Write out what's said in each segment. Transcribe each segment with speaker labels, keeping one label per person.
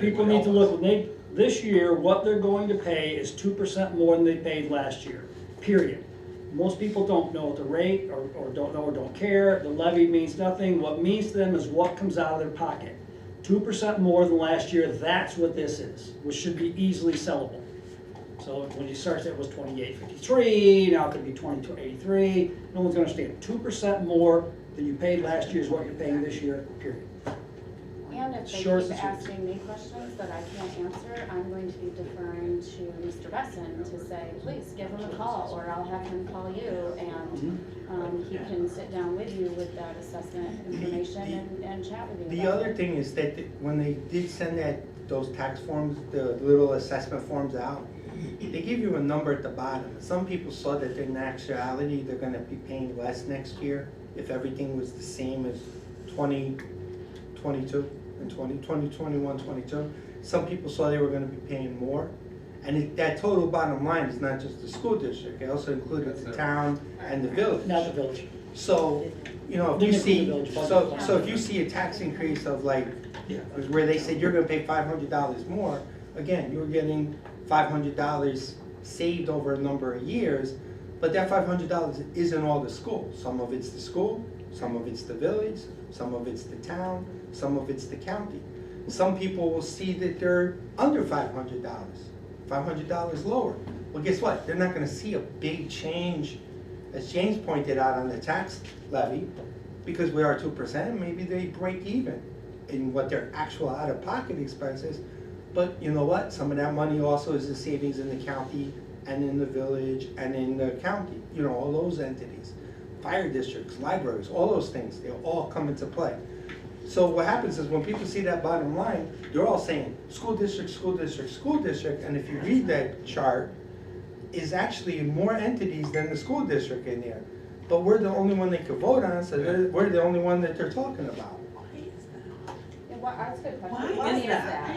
Speaker 1: People need to look, when they, this year, what they're going to pay is two percent more than they paid last year, period. Most people don't know the rate, or, or don't know, or don't care, the levy means nothing, what means to them is what comes out of their pocket. Two percent more than last year, that's what this is, which should be easily sellable. So when you start, it was twenty-eight fifty-three, now it could be twenty-two eighty-three, no one's gonna understand, two percent more than you paid last year is what you're paying this year, period.
Speaker 2: And if they
Speaker 1: Sure,
Speaker 2: keep
Speaker 1: since-
Speaker 2: asking me questions that I can't answer, I'm going to be deferring to Mr. Besson to say, please give him a call, or I'll have him call you, and,
Speaker 3: Mm-hmm.
Speaker 2: um, he can sit down with you with that assessment information and, and chat with you
Speaker 3: The
Speaker 2: about
Speaker 3: other
Speaker 2: it.
Speaker 3: thing is that th- when they did send that, those tax forms, the little assessment forms out, they give you a number at the bottom. Some people saw that in actuality, they're gonna be paying less next year if everything was the same as twenty twenty-two and twenty, twenty twenty-one, twenty-two. Some people saw they were gonna be paying more. And it, that total bottom line is not just the school district, it also included the town and the village.
Speaker 1: Not the village.
Speaker 3: So, you know, if
Speaker 1: Then
Speaker 3: you
Speaker 1: it's in the
Speaker 3: see,
Speaker 1: village budget.
Speaker 3: so, so if you see a tax increase of like, where they said you're gonna pay five hundred dollars more, again, you're getting five hundred dollars saved over a number of years, but that five hundred dollars isn't all the school, some of it's the school, some of it's the village, some of it's the town, some of it's the county. Some people will see that they're under five hundred dollars, five hundred dollars lower. Well, guess what, they're not gonna see a big change as James pointed out on the tax levy, because we are two percent, maybe they break even in what their actual out-of-pocket expenses. But you know what? Some of that money also is in savings in the county and in the village and in the county, you know, all those entities. Fire districts, libraries, all those things, they all come into play. So what happens is when people see that bottom line, they're all saying, school district, school district, school district, and if you read that chart, is actually more entities than the school district in there. But we're the only one they could vote on, so they're- we're the only one that they're talking about.
Speaker 2: Yeah, why, that's a good
Speaker 4: Why
Speaker 2: question.
Speaker 4: is
Speaker 2: that?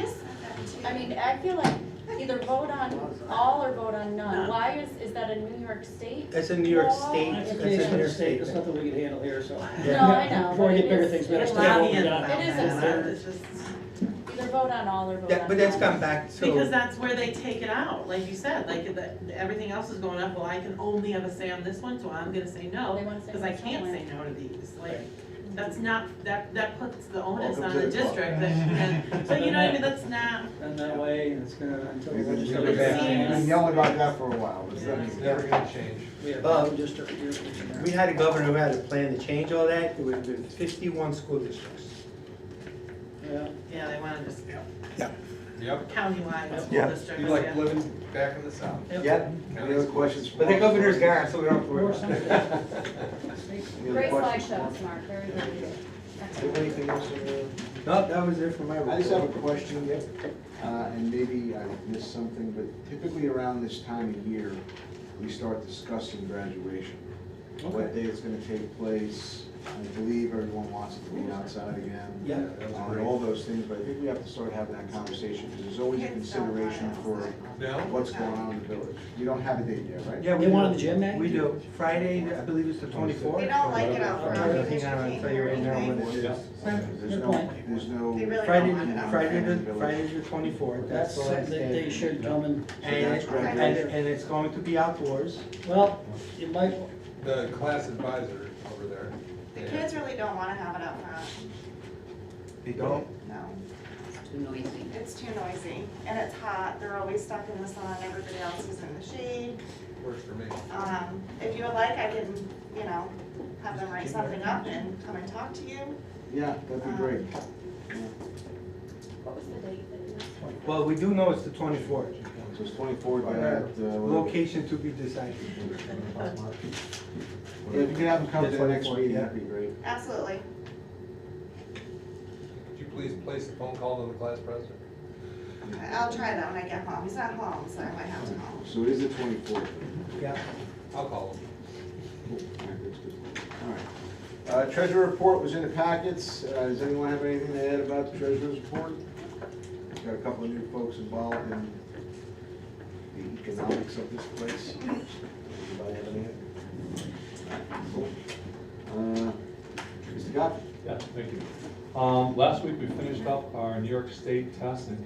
Speaker 4: that?
Speaker 2: I mean, I feel like either vote on all or vote on none.
Speaker 4: None.
Speaker 2: Why is, is that a New York State?
Speaker 3: That's in New York
Speaker 2: Well,
Speaker 3: State,
Speaker 2: It's
Speaker 3: that's
Speaker 2: a
Speaker 3: in New York State.
Speaker 1: It's nothing we can handle here, so.
Speaker 3: Yeah.
Speaker 2: No, I know,
Speaker 1: Before we
Speaker 2: but
Speaker 1: get
Speaker 2: it
Speaker 1: bigger
Speaker 2: is-
Speaker 1: things, better
Speaker 2: it's
Speaker 1: stay
Speaker 2: lobbying
Speaker 1: what we got.
Speaker 2: about
Speaker 4: It is
Speaker 2: that.
Speaker 4: absurd.
Speaker 2: Either vote on all or vote on none.
Speaker 3: That- but that's gone back
Speaker 4: Because
Speaker 3: to,
Speaker 4: that's where they take it out, like you said, like the, everything else is going up, well, I can only have a say on this one, so I'm gonna
Speaker 2: They
Speaker 4: say no,
Speaker 2: wanna say
Speaker 4: cause I
Speaker 2: no
Speaker 4: can't
Speaker 2: somewhere.
Speaker 4: say no to these, like,
Speaker 3: Right.
Speaker 4: that's not, that, that puts the onus
Speaker 5: Welcome
Speaker 4: on
Speaker 5: to
Speaker 4: the
Speaker 5: the club.
Speaker 4: district, that, that, but you know, what I mean, that's not,
Speaker 1: And that way, and it's gonna, until the
Speaker 5: We've been- we've
Speaker 1: legislature.
Speaker 5: been
Speaker 4: Seems-
Speaker 5: been yelling about that for a while, it's it's never gonna change.
Speaker 1: We have
Speaker 3: Uh,
Speaker 1: one district here, which is
Speaker 3: we had a governor who had a plan to change all that, it would have been fifty-one school districts.
Speaker 1: Yeah,
Speaker 4: yeah, they wanna just
Speaker 5: Yep.
Speaker 4: countywide, school
Speaker 6: Yeah.
Speaker 4: district,
Speaker 5: You
Speaker 4: yeah.
Speaker 5: like living back in the south.
Speaker 3: Yep,
Speaker 5: Any other questions?
Speaker 3: but the governor's gone, so we don't have to worry about it.
Speaker 5: Any other
Speaker 2: Great
Speaker 5: questions?
Speaker 2: slideshows, Mark, very good.
Speaker 7: Anything else in there?
Speaker 3: Nope, that was it for my report.
Speaker 7: I just have a question, uh, and maybe I missed something, but typically around this time of year, we start discussing graduation. What day it's gonna take place, I believe everyone wants it to be outside again.
Speaker 3: Yeah.
Speaker 7: uh, And all those things, but I think we have to start having that conversation, because there's always a consideration for
Speaker 5: No?
Speaker 7: what's going on in the village. You don't have a date yet, right?
Speaker 3: Yeah, we
Speaker 1: They wanted
Speaker 3: do.
Speaker 1: the gym back?
Speaker 3: We do, Friday, I believe it's the twenty-fourth.
Speaker 8: They don't like it out front.
Speaker 3: Everything, I'm gonna tell you right now when it is.
Speaker 7: There's
Speaker 1: Good
Speaker 7: no,
Speaker 1: point.
Speaker 7: there's no.
Speaker 8: They really
Speaker 3: Friday,
Speaker 8: don't want it
Speaker 3: the-
Speaker 8: out
Speaker 3: Friday,
Speaker 8: front.
Speaker 3: the, Friday the twenty-fourth,
Speaker 1: that's
Speaker 3: that's the last
Speaker 1: something
Speaker 3: day.
Speaker 1: they should come and,
Speaker 3: And,
Speaker 7: That's correct.
Speaker 3: and, and it's going to be outdoors.
Speaker 1: well, it might,
Speaker 5: The class advisor over there.
Speaker 8: The kids really don't wanna have it out front,
Speaker 3: They don't?
Speaker 8: no.
Speaker 1: you know,
Speaker 8: It's too noisy, and it's hot, they're always stuck in the sun, everybody else is in the shade.
Speaker 5: Works for me.
Speaker 8: Um, if you would like, I can, you know, have them write something up and come and talk to you.
Speaker 7: Yeah, that'd be great.
Speaker 2: What was the date that you were?
Speaker 3: Well, we do know it's the twenty-fourth.
Speaker 7: So it's twenty-four by that, uh, whatever.
Speaker 3: Location to be decided.
Speaker 7: Yeah, if you can have them come to the next
Speaker 3: 24,
Speaker 7: meeting,
Speaker 3: yeah.
Speaker 7: that'd be great.
Speaker 8: Absolutely.
Speaker 5: Could you please place a phone call to the class president?
Speaker 8: I'll try that when I get home. He's not home, so I might have to call.
Speaker 7: So it is the twenty-fourth.
Speaker 3: Yeah.
Speaker 5: I'll call him.
Speaker 7: Uh, treasurer report was in the packets. Uh, does anyone have anything to add about the treasurer's report? Got a couple of new folks involved in the economics of this place. Anybody have anything? Cool. Uh, Mr. Goff?
Speaker 9: Yeah, thank you. Um, last week, we finished up our New York State test and